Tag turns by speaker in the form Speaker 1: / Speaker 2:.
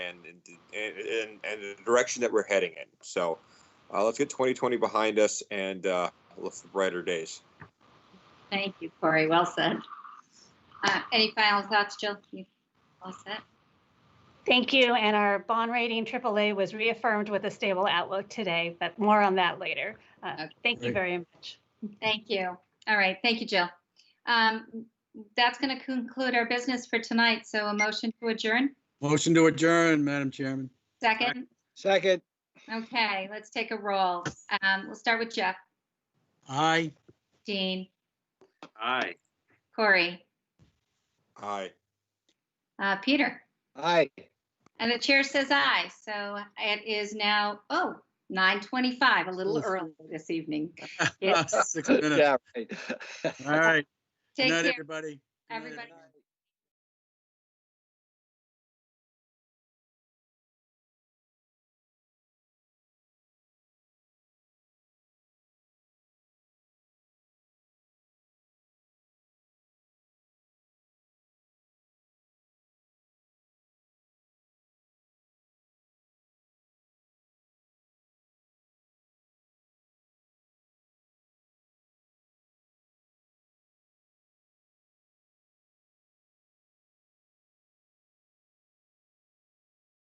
Speaker 1: and and, and, and the direction that we're heading in. So uh, let's get 2020 behind us and uh, look for brighter days.
Speaker 2: Thank you, Corey. Well said. Uh, Any final thoughts, Jill? You all set?
Speaker 3: Thank you. And our bond rating AAA was reaffirmed with a stable outlook today, but more on that later. Uh,
Speaker 2: Okay.
Speaker 3: Thank you
Speaker 4: Great.
Speaker 3: very much.
Speaker 2: Thank you. All right, thank you, Jill. Um, That's going to conclude our business for tonight, so a motion to adjourn.
Speaker 4: Motion to adjourn, Madam Chairman.
Speaker 2: Second,
Speaker 5: Second,
Speaker 2: okay, let's take a roll. Um, We'll start with Jeff,
Speaker 4: Aye.
Speaker 2: Dean,
Speaker 6: Aye.
Speaker 2: Corey,
Speaker 1: Aye.
Speaker 2: uh, Peter.
Speaker 5: aye.
Speaker 2: And the chair says aye, so it is now, oh, 9:25, a little
Speaker 4: Oof.
Speaker 2: early this evening.
Speaker 4: Six minutes.
Speaker 5: Yeah, right.
Speaker 4: All right. Good
Speaker 2: Take
Speaker 4: night,
Speaker 2: care,
Speaker 4: everybody. Good night,
Speaker 2: everybody.
Speaker 4: everyone.